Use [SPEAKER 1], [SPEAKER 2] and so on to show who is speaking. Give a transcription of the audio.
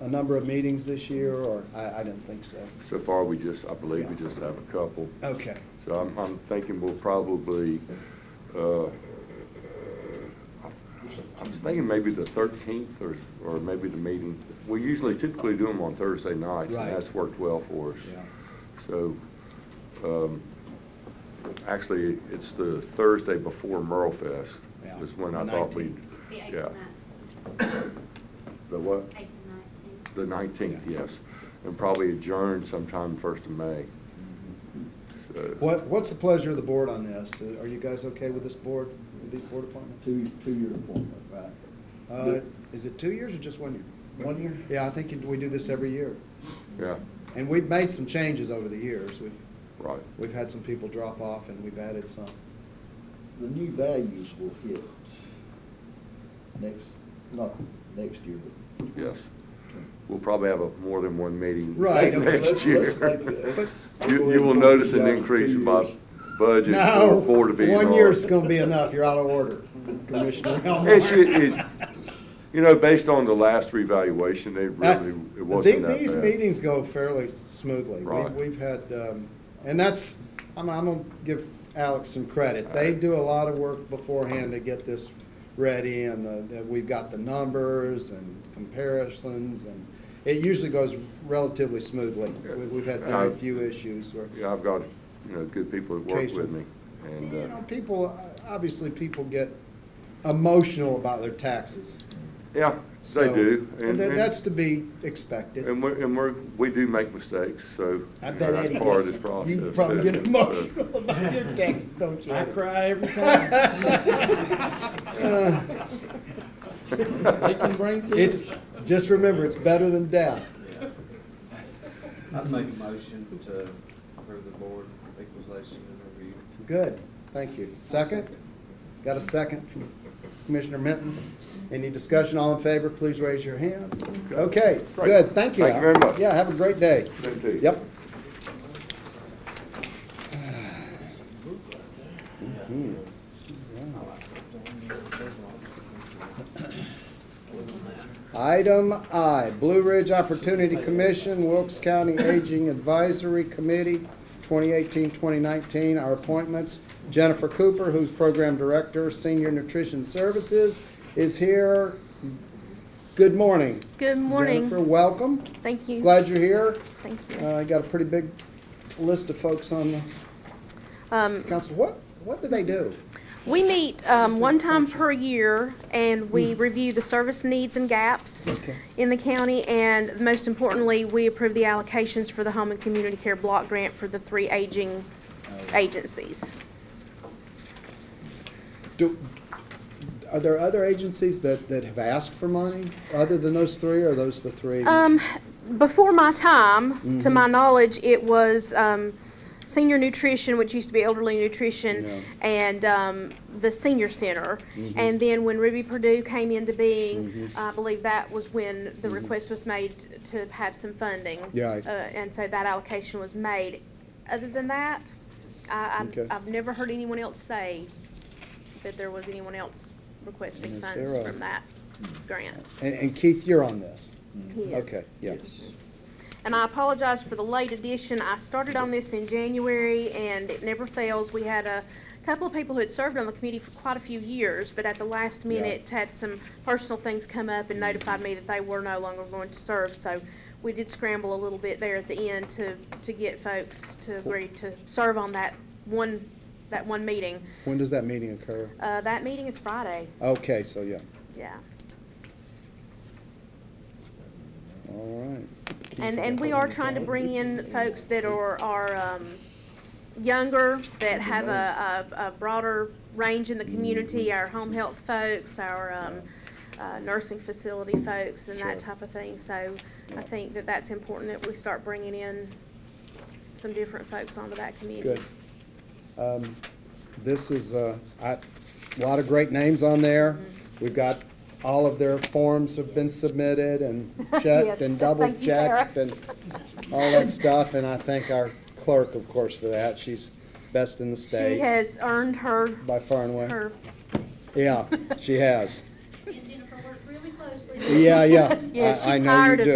[SPEAKER 1] a number of meetings this year, or I, I didn't think so.
[SPEAKER 2] So far, we just, I believe we just have a couple.
[SPEAKER 1] Okay.
[SPEAKER 2] So I'm, I'm thinking we'll probably, uh, I was thinking maybe the thirteenth or, or maybe the meeting. We usually typically do them on Thursday nights,
[SPEAKER 1] Right.
[SPEAKER 2] and that's worked well for us.
[SPEAKER 1] Yeah.
[SPEAKER 2] So, um, actually, it's the Thursday before Merle Fest
[SPEAKER 1] Yeah,
[SPEAKER 2] is when I
[SPEAKER 1] the
[SPEAKER 2] thought we,
[SPEAKER 1] 19th.
[SPEAKER 3] The
[SPEAKER 2] yeah.
[SPEAKER 3] April
[SPEAKER 2] The what?
[SPEAKER 3] nineteenth, April nineteenth.
[SPEAKER 2] The nineteenth,
[SPEAKER 1] Yeah.
[SPEAKER 2] yes, and probably adjourn sometime first of May. So-
[SPEAKER 1] What, what's the pleasure of the board on this? Uh, Are you guys okay with this board, with these board appointments?
[SPEAKER 4] Two, two-year appointment, right?
[SPEAKER 1] Uh, Is it two years or just one year?
[SPEAKER 4] One year?
[SPEAKER 1] Yeah, I think we do this every year.
[SPEAKER 2] Yeah,
[SPEAKER 1] And we've made some changes over the years. We've,
[SPEAKER 2] right.
[SPEAKER 1] we've had some people drop off and we've added some.
[SPEAKER 4] The new values will hit next, not next year, but.
[SPEAKER 2] Yes. We'll probably have a, more than one meeting
[SPEAKER 1] Right,
[SPEAKER 2] next
[SPEAKER 1] okay,
[SPEAKER 2] next
[SPEAKER 4] let's-
[SPEAKER 2] year.
[SPEAKER 4] let's make it- let's-
[SPEAKER 2] You, you will notice an
[SPEAKER 4] Two
[SPEAKER 2] increase in my
[SPEAKER 4] years.
[SPEAKER 2] budget
[SPEAKER 1] No,
[SPEAKER 2] for Board of E&R.
[SPEAKER 1] one year's gonna be enough. You're out of order, Commissioner Elmore.
[SPEAKER 2] It's, it, it- you know, based on the last revaluation, they really,
[SPEAKER 1] Uh,
[SPEAKER 2] it wasn't
[SPEAKER 1] the-
[SPEAKER 2] that bad.
[SPEAKER 1] These meetings go fairly smoothly. We-
[SPEAKER 2] Right.
[SPEAKER 1] We've had, um, and that's, I'm, I'm gonna give Alex some credit. They
[SPEAKER 2] Alright.
[SPEAKER 1] do a lot of work beforehand to get this ready and the- that we've got the numbers and comparisons and it usually goes relatively smoothly.
[SPEAKER 2] Yeah.
[SPEAKER 1] We- We've had
[SPEAKER 2] Uh,
[SPEAKER 1] very few issues where.
[SPEAKER 2] Yeah, I've got, you know, good people that work with me, and,
[SPEAKER 1] You
[SPEAKER 2] uh,
[SPEAKER 1] know, people, obviously people get emotional about their taxes.
[SPEAKER 2] yeah, they
[SPEAKER 1] So-
[SPEAKER 2] do.
[SPEAKER 1] And that-
[SPEAKER 2] and-
[SPEAKER 1] that's to be expected.
[SPEAKER 2] And we're, and we're, we do make mistakes, so.
[SPEAKER 1] I
[SPEAKER 2] you
[SPEAKER 1] bet
[SPEAKER 2] know, that's
[SPEAKER 1] Eddie
[SPEAKER 2] part of
[SPEAKER 1] gets-
[SPEAKER 2] this process.
[SPEAKER 1] You probably
[SPEAKER 2] too,
[SPEAKER 1] get
[SPEAKER 2] so-
[SPEAKER 1] emotional about your text, don't you?
[SPEAKER 5] I cry every time. They can bring tears.
[SPEAKER 1] It's, just remember, it's better than death.
[SPEAKER 6] I'd make a motion to approve the board equalization and review.
[SPEAKER 1] Good, thank you. Second? Got a second from Commissioner Minton? Any discussion, all in favor, please raise your hands. Okay,
[SPEAKER 2] Great.
[SPEAKER 1] good, thank you.
[SPEAKER 2] Thank you very
[SPEAKER 1] Alex.
[SPEAKER 2] much.
[SPEAKER 1] Yeah, have a great day.
[SPEAKER 2] Thank you.
[SPEAKER 1] Yep. Item I, Blue Ridge Opportunity Commission, Wilkes County Aging Advisory Committee, 2018-2019, our appointments. Jennifer Cooper, who's Program Director, Senior Nutrition Services, is here. Good morning.
[SPEAKER 7] Good morning.
[SPEAKER 1] Jennifer, welcome.
[SPEAKER 7] Thank you.
[SPEAKER 1] Glad you're here.
[SPEAKER 7] Thank you.
[SPEAKER 1] Uh, I got a pretty big list of folks on the
[SPEAKER 7] Um,
[SPEAKER 1] council. What, what do they do?
[SPEAKER 7] we meet, um, one time per year and we review the service needs and gaps
[SPEAKER 1] Hmm. Okay.
[SPEAKER 7] in the county. And most importantly, we approve the allocations for the home and community care block grant for the three aging
[SPEAKER 1] Oh.
[SPEAKER 7] agencies.
[SPEAKER 1] Do, are there other agencies that, that have asked for money other than those three? or Are those the three?
[SPEAKER 7] Um, before my time, to
[SPEAKER 1] Mm-hmm.
[SPEAKER 7] my knowledge, it was, um, senior nutrition, which used to be elderly
[SPEAKER 1] Yeah. Mm-hmm.
[SPEAKER 7] nutrition, and, um, the senior center. And then when Ruby Purdue came into being, I believe that was when the request was made to have some funding.
[SPEAKER 1] Mm-hmm. Yeah, I-
[SPEAKER 7] Uh, and so that allocation was made. Other than that, I,
[SPEAKER 1] Okay.
[SPEAKER 7] I've, I've never heard anyone else say that there was anyone else requesting
[SPEAKER 1] And is
[SPEAKER 7] funds
[SPEAKER 1] there a-
[SPEAKER 7] from that grant.
[SPEAKER 1] And, and Keith, you're on this?
[SPEAKER 7] He is.
[SPEAKER 1] Okay, yeah.
[SPEAKER 7] And I apologize for the late addition. I started on this in January and it never fails. We had a couple of people who had served on the committee for quite a few years, but at the last minute had some personal things come up and notified me that they were no longer going to serve. So we did scramble a little bit there at the end to, to get folks to agree to serve on that one, that one meeting.
[SPEAKER 1] When does that meeting occur?
[SPEAKER 7] Uh, that meeting is Friday,
[SPEAKER 1] Okay, so yeah,
[SPEAKER 7] yeah.
[SPEAKER 1] all right.
[SPEAKER 7] And, and we are trying to bring in folks that are, are, um, younger, that have a, a, a broader range in the community, our home health folks, our, um, uh, nursing facility folks and
[SPEAKER 1] Sure.
[SPEAKER 7] that type of thing. So I think that that's important that we start bringing in some different folks onto that committee.
[SPEAKER 1] Good. Um, This is, uh, I- a lot of great names on there. We've got, all of their forms have been submitted and checked and
[SPEAKER 7] Yes,
[SPEAKER 1] double
[SPEAKER 7] thank you, Sarah.
[SPEAKER 1] checked and all that stuff. And I thank our clerk, of course, for that. She's best in the
[SPEAKER 7] She
[SPEAKER 1] state
[SPEAKER 7] has earned her,
[SPEAKER 1] by far and away.
[SPEAKER 7] her,
[SPEAKER 1] Yeah, she has.
[SPEAKER 3] And Jennifer worked really closely.
[SPEAKER 1] Yeah, yeah.
[SPEAKER 7] Yes, yes,
[SPEAKER 1] I- I
[SPEAKER 7] she's
[SPEAKER 1] know you
[SPEAKER 7] tired of
[SPEAKER 1] do.